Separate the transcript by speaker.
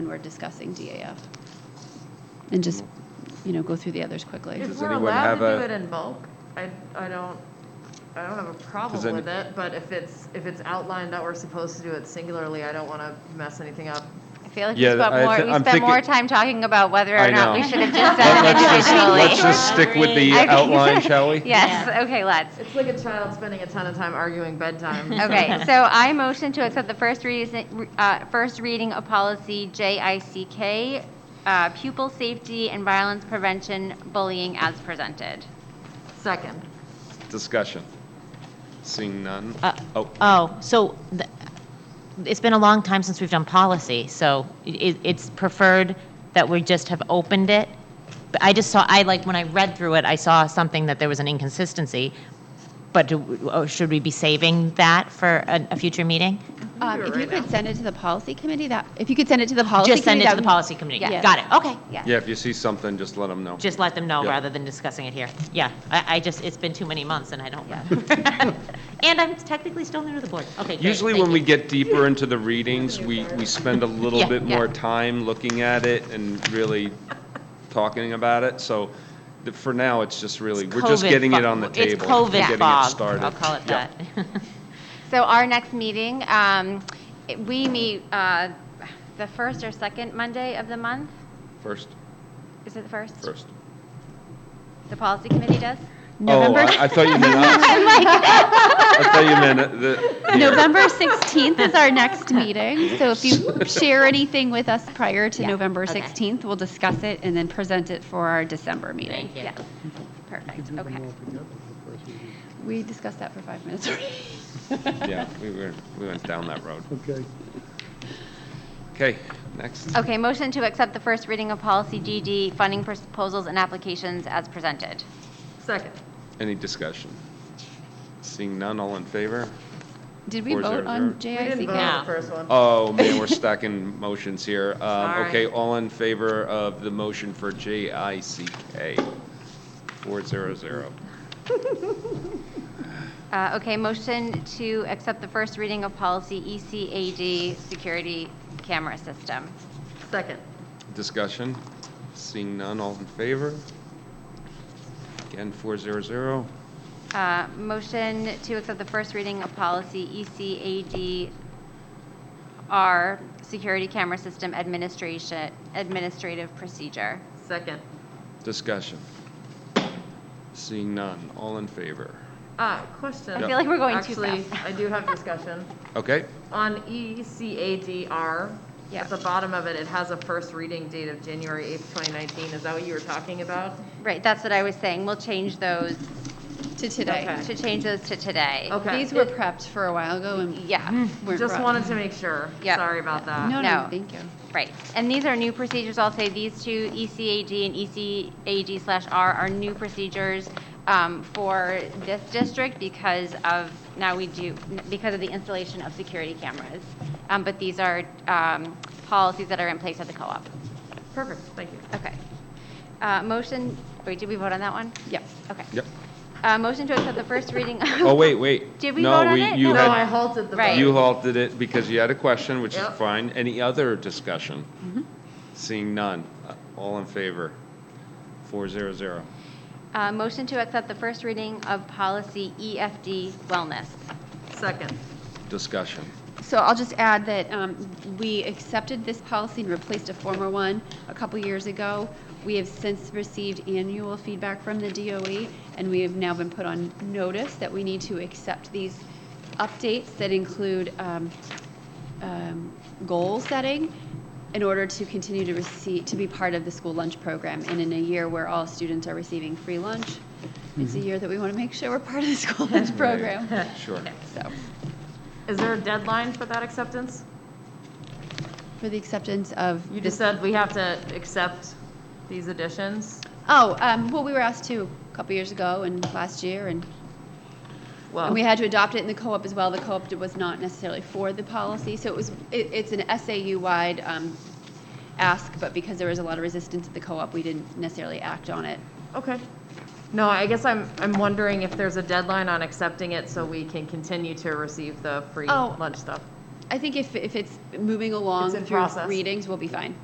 Speaker 1: we're discussing DAF. And just, you know, go through the others quickly.
Speaker 2: If
Speaker 3: Does
Speaker 2: we're
Speaker 3: anyone
Speaker 2: allowed
Speaker 3: have
Speaker 2: to
Speaker 3: a-
Speaker 2: do it in bulk, I, I don't, I don't have a
Speaker 3: Does
Speaker 2: problem
Speaker 3: any-
Speaker 2: with it, but if it's, if it's outlined that we're supposed to do it singularly, I don't want to mess anything up.
Speaker 4: I feel like we
Speaker 3: Yeah,
Speaker 4: spent
Speaker 3: I
Speaker 4: more,
Speaker 3: thi-
Speaker 4: we
Speaker 3: I'm
Speaker 4: spent more
Speaker 3: thinking-
Speaker 4: time talking about whether
Speaker 3: I
Speaker 4: or not we
Speaker 3: know.
Speaker 4: should have just done it
Speaker 3: Let's just, let's
Speaker 4: individually.
Speaker 3: just stick with the
Speaker 4: Okay.
Speaker 3: outline, shall we?
Speaker 4: Yes, okay, let's.
Speaker 2: It's like a child spending a ton of time arguing bedtime.
Speaker 4: Okay, so I motion to accept the first reason, uh, first reading of policy JICK, uh, pupil safety and violence prevention bullying as presented.
Speaker 2: Second.
Speaker 3: Discussion. Seeing none.
Speaker 5: Uh,
Speaker 3: Oh,
Speaker 5: Oh, so th- it's been a long time since we've done policy, so it- it's preferred that we just have opened it. But I just saw, I like, when I read through it, I saw something that there was an inconsistency, but do- oh, should we be saving that for a a future meeting?
Speaker 1: Um,
Speaker 2: do it
Speaker 1: If you
Speaker 2: right
Speaker 1: could
Speaker 2: now.
Speaker 1: send it to the policy committee, that, if you could send it to the policy committee.
Speaker 5: Just send it
Speaker 1: that
Speaker 5: to the
Speaker 1: would-
Speaker 5: policy committee?
Speaker 1: Yeah.
Speaker 5: Got it, okay.
Speaker 4: Yeah.
Speaker 3: yeah, if you see something, just let them know.
Speaker 5: Just let them know
Speaker 3: Yeah.
Speaker 5: rather than discussing it here. Yeah, I I just, it's been too many months and I don't remember. And I'm technically still new to the board. Okay, great.
Speaker 3: Usually
Speaker 5: Thank
Speaker 3: when we
Speaker 5: you.
Speaker 3: get deeper into the readings, we, we spend a little
Speaker 5: Yeah,
Speaker 3: bit
Speaker 4: yeah.
Speaker 3: more time looking at it and really talking about it, so the- for now, it's just really, we're just
Speaker 5: COVID
Speaker 3: getting it
Speaker 5: fo-
Speaker 3: on the table.
Speaker 5: It's
Speaker 3: and getting
Speaker 5: COVID
Speaker 3: it
Speaker 5: fog,
Speaker 3: started.
Speaker 5: I'll call it
Speaker 3: Yeah.
Speaker 5: that.
Speaker 4: So our next meeting, um, it- we meet uh, the first or second Monday of the month?
Speaker 3: First,
Speaker 4: Is it the first?
Speaker 3: first.
Speaker 4: The policy committee does?
Speaker 3: Oh,
Speaker 1: November,
Speaker 3: I I thought you meant, us. I thought you meant the. here.
Speaker 1: November 16th is our next meeting, so if you share anything with us prior to November
Speaker 5: okay.
Speaker 1: 16th, we'll discuss it and then present it for our December meeting.
Speaker 5: Thank you.
Speaker 1: Yeah. Perfect, okay. We discussed that for five minutes.
Speaker 3: Yeah, we were, we went down that road.
Speaker 6: Okay.
Speaker 3: Okay, next.
Speaker 4: Okay, motion to accept the first reading of policy GD, funding proposals and applications as presented.
Speaker 2: Second.
Speaker 3: Any discussion? Seeing none, all in favor?
Speaker 1: Did we
Speaker 3: Four zero
Speaker 1: vote on
Speaker 2: We didn't
Speaker 1: JICK?
Speaker 2: vote on
Speaker 5: No.
Speaker 2: the first one.
Speaker 3: Oh, man, we're stacking motions here. Um,
Speaker 2: Sorry.
Speaker 3: Okay, all in favor of the motion for JICK? 400.
Speaker 4: Uh, Okay, motion to accept the first reading of policy E ECAD, security camera system.
Speaker 2: Second.
Speaker 3: Discussion? Seeing none, all in favor? Again, 400.
Speaker 4: Uh, Motion to accept the first reading of policy E ECADR, security camera system administration, administrative procedure.
Speaker 2: Second.
Speaker 3: Discussion? Seeing none, all in favor?
Speaker 2: Ah, question.
Speaker 4: I feel like we're going too
Speaker 2: Actually,
Speaker 4: fast.
Speaker 2: I do have discussion.
Speaker 3: Okay,
Speaker 2: On E ECADR,
Speaker 1: Yeah.
Speaker 2: at the bottom of it, it has a first reading date of January 8th, 2019. Is that what you were talking about?
Speaker 4: Right, that's what I was saying. We'll change those,
Speaker 1: To today.
Speaker 2: Okay.
Speaker 4: to change those to today.
Speaker 2: Okay.
Speaker 1: These were prepped for a while ago and
Speaker 4: Yeah.
Speaker 1: weren't
Speaker 2: Just
Speaker 1: brought-
Speaker 2: wanted to make sure.
Speaker 4: Yep.
Speaker 2: Sorry about that.
Speaker 1: No,
Speaker 4: No.
Speaker 1: no, thank you.
Speaker 4: Right, and these are new procedures, I'll say these two, E ECAG and ECAG slash R are new procedures um, for this district because of, now we do, because of the installation of security cameras. Um, But these are um, policies that are in place at the co-op.
Speaker 2: Perfect, thank you.
Speaker 4: Okay. Uh, Motion, wait, did we vote on that one?
Speaker 1: Yeah.
Speaker 4: Okay.
Speaker 3: yep.
Speaker 4: Uh, Motion to accept the first reading.
Speaker 3: Oh, wait, wait.
Speaker 4: Did we
Speaker 3: No,
Speaker 4: vote on it?
Speaker 3: you
Speaker 4: No,
Speaker 2: No,
Speaker 3: had-
Speaker 2: I halted the
Speaker 4: Right.
Speaker 2: vote.
Speaker 3: You halted it because you had a question, which is
Speaker 2: Yep.
Speaker 3: fine. Any other discussion? Seeing none. Uh, All in favor? 400.
Speaker 4: Uh, Motion to accept the first reading of policy EFD wellness.
Speaker 2: Second.
Speaker 3: Discussion.
Speaker 1: So I'll just add that um, we accepted this policy and replaced a former one a couple years ago. We have since received annual feedback from the DOE, and we have now been put on notice that we need to accept these updates that include um, um, goal setting in order to continue to receive, to be part of the school lunch program. And in a year where all students are receiving free lunch, it's a
Speaker 2: Mm-hmm.
Speaker 1: year that we want to make sure we're part of the school lunch program.
Speaker 3: Sure.
Speaker 1: So.
Speaker 2: Is there a deadline for that acceptance?
Speaker 1: For the acceptance of
Speaker 2: You
Speaker 1: this,
Speaker 2: just said we have to accept these additions?
Speaker 1: oh, um, well, we were asked to a couple years ago and last year, and,
Speaker 2: Well,
Speaker 1: and we had to adopt it in the co-op as well. The co-op did- was not necessarily for the policy, so it was, it, it's an SAU-wide, um, ask, but because there was a lot of resistance at the co-op, we didn't necessarily act on it.
Speaker 2: okay. No, I guess I'm, I'm wondering if there's a deadline on accepting it so we can continue to receive the free
Speaker 1: Oh.
Speaker 2: lunch stuff.
Speaker 1: I think if, if it's moving along
Speaker 2: It's in
Speaker 1: through
Speaker 2: process.
Speaker 1: readings, we'll be fine.